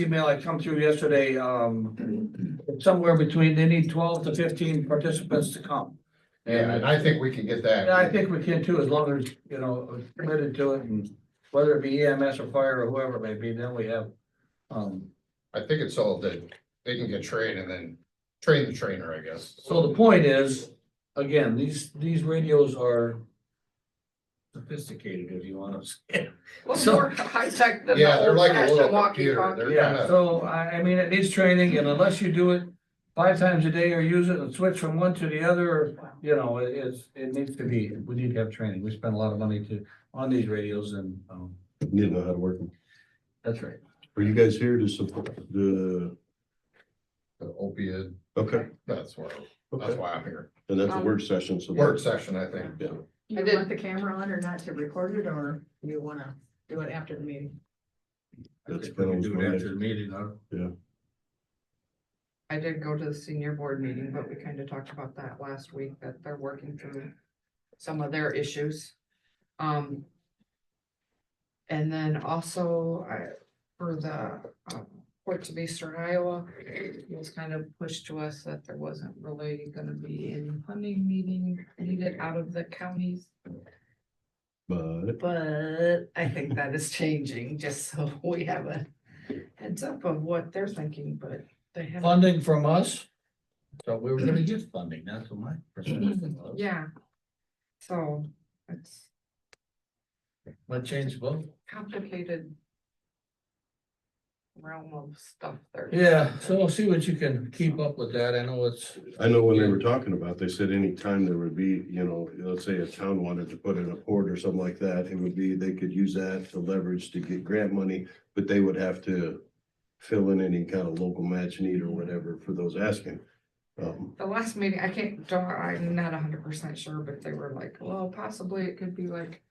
email I come through yesterday, um, it's somewhere between, they need twelve to fifteen participants to come. Yeah, And and I think we can get and I that. think we can too, as long as, you know, committed to it and whether it be EMS or fire or whoever it may be, then we have, um, I think it's all that they can get trained and then train the trainer, I guess. So the point is, again, these, these radios are sophisticated, if you want to say. Well, So- more high-tech than Yeah, the they're like a old-fashioned little computer. walkie-talkie. They're Yeah, kinda, so I, I mean, it needs training and unless you do it five times a day or use it and switch from one to the other, or, you know, it is, it needs to be, we need to have training. We spend a lot of money to, on these radios and, um, You know how to work them. that's right. Are you guys here to support the, the opiate, okay, that's why, that's okay, why I'm here. and that's a work session, so. Work session, I think. Yeah, I You did- want the camera on or not to record it, or you wanna do it after the meeting? I That's think we can kind of do what it I- after the meeting, huh? I did go to the senior board meeting, but we kind of talked about that last week, that they're working through some of their issues. Um. And then also, I, for the, um, Port of Eastern Iowa, it was kind of pushed to us that there wasn't really gonna be any funding meeting needed out of the counties. But But I think that is changing, just so we have a heads up of what they're thinking, but they haven't. Funding from us? So we were gonna get funding, that's what my perspective was. Yeah. So it's What changed both? complicated. Realm of stuff there. Yeah, so we'll see what you can keep up with that. I know it's, I know when they were talking about, they said anytime there would be, you know, let's say a town wanted to put in a port or something like that, it would be, they could use that to leverage to get grant money, but they would have to fill in any kind of local match need or whatever for those asking. Um, The last meeting, I can't, don't, I'm not hundred percent sure, but they were like, well, possibly it could be like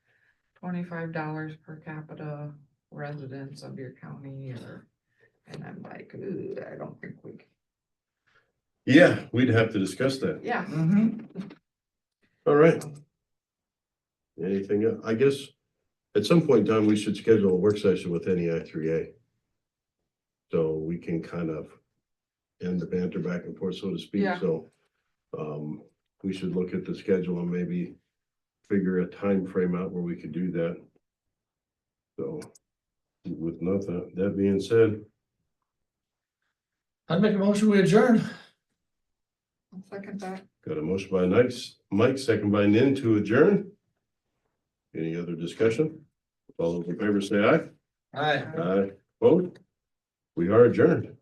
twenty-five dollars per capita residents of your county or. And I'm like, ooh, I don't think we, c- yeah, we'd have to discuss that. yeah. Mm-hmm. All right. Anything, else? I guess, at some point in time, we should schedule a work session with NEI three A. So we can kind of end the banter back and forth, so to speak, Yeah. so. Um, we should look at the schedule and maybe figure a time frame out where we could do that. So, with nothing, that being said, I'd make a motion, we adjourn. I'll Second that. got a motion by Mike, Mike, second by Nin to adjourn. Any other discussion? All those in favor say aye. All right. Aye, vote. We are adjourned.